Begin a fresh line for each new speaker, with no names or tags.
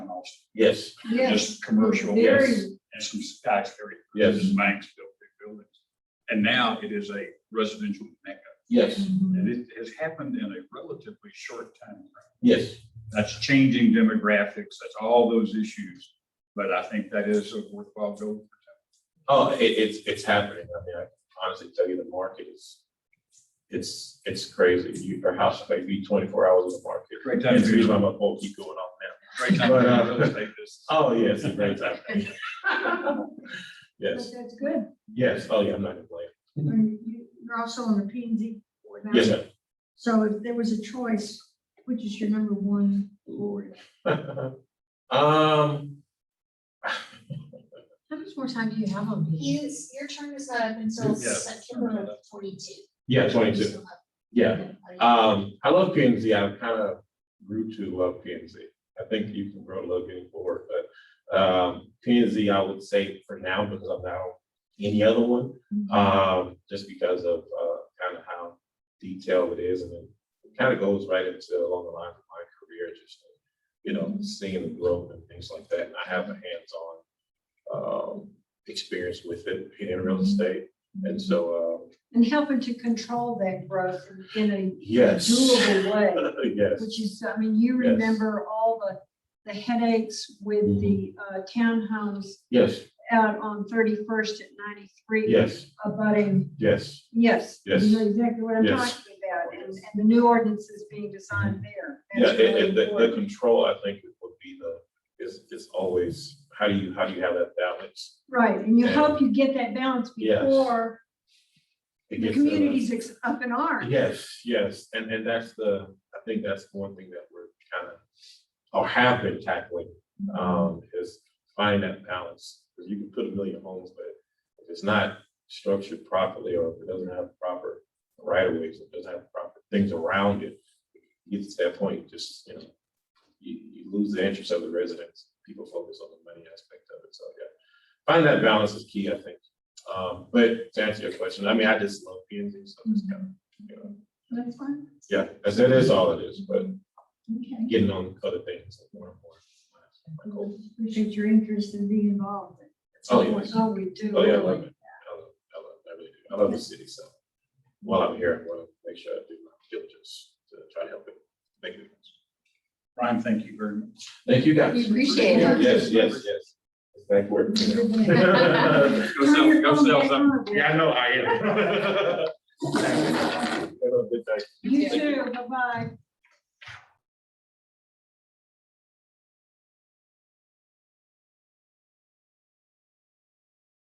house.
Yes.
Yes.
Just commercial.
Very.
And some skyscrapers.
Yes.
and Banks built big buildings. And now it is a residential mecca.
Yes,
And it has happened in a relatively short time. frame.
yes,
That's changing demographics, that's all those issues. But I think that is a worthwhile goal.
oh, it, it's, it's happening, I mean, I can honestly tell you the market is, it's, it's crazy, you, your house might be twenty-four hours in the market.
Great time
That's
to
the reason
be,
why my poll keep going off now.
great time
But,
to
uh,
be in real estate business.
Oh, yes, a great time,
But
yes,
That's good.
yes, oh, yeah, I'm not gonna blame.
And you- You're also on the P and Z board now.
Yes, ma'am.
So if there was a choice, which is your number one board?
Um,
How much more time do you have on these?
His, your term is up until
Yeah.
September of twenty-two.
yeah, twenty-two,
So, uh,
yeah.
are you-
Um, I love P and Z. I kind of grew to love P and Z. I think you can grow to love getting bored, but um, P and Z, I would say for now, because I'm now any other one,
Mm-hmm.
um, just because of uh, kind of how detailed it is, and it kind of goes right into along the lines of my career, just you know,
Mm-hmm.
seeing the growth and things like that. And I have a hands-on um, experience with it being in
Mm-hmm.
real estate, and so um,
And helping to control that growth in a
yes,
doable way.
yes,
Which is, I mean, you
Yes. Mm-hmm.
remember all the, the headaches with the uh, townhomes
yes,
out on thirty-first at ninety-three.
yes,
Abutting,
yes.
yes.
Yes.
You know exactly what I'm talking
Yes. Mm-hmm.
about, and, and the new ordinances being designed there.
Yeah, and,
That's really
and the, the
important.
control, I think, would be the, is, is always, how do you, how do you have that balance?
Right, and you
and-
hope you get that balance
Yes.
before
It
the
gets uh, to the-
community's ex- up in arms.
Yes, yes, and, and that's the, I think that's one thing that we're kind of, or have been tackling, um, is finding that balance. Because you can put a million homes, but if it's not structured properly, or if it doesn't have proper right of ways, it doesn't have proper things around it, it gets to that point, just, you know, you, you lose the interest of the residents, people focus on the money aspect of it, so, yeah. Finding that balance is key, I think. Um, but to answer your question, I mean, I just love P and Z, so it's kind of, you know,
That's fine.
yeah, that's, that is all it is, but
Okay.
getting on other things like more and more. My goal.
Appreciate your interest in being involved.
Oh, yes.
Oh, we do.
Oh, yeah, I love it. I love, I love, I really do. I love the city, so while I'm here, I want to make sure I do my diligence to try to help it. make it.
Brian, thank you very much.
Thank you guys.
We appreciate
it.
Yes, yes, yes. Thank you.
Go sell-
Turn your
go
phone
sell
back
some.
on.
Yeah, I know, I am. Have a good night.
You too, bye-bye.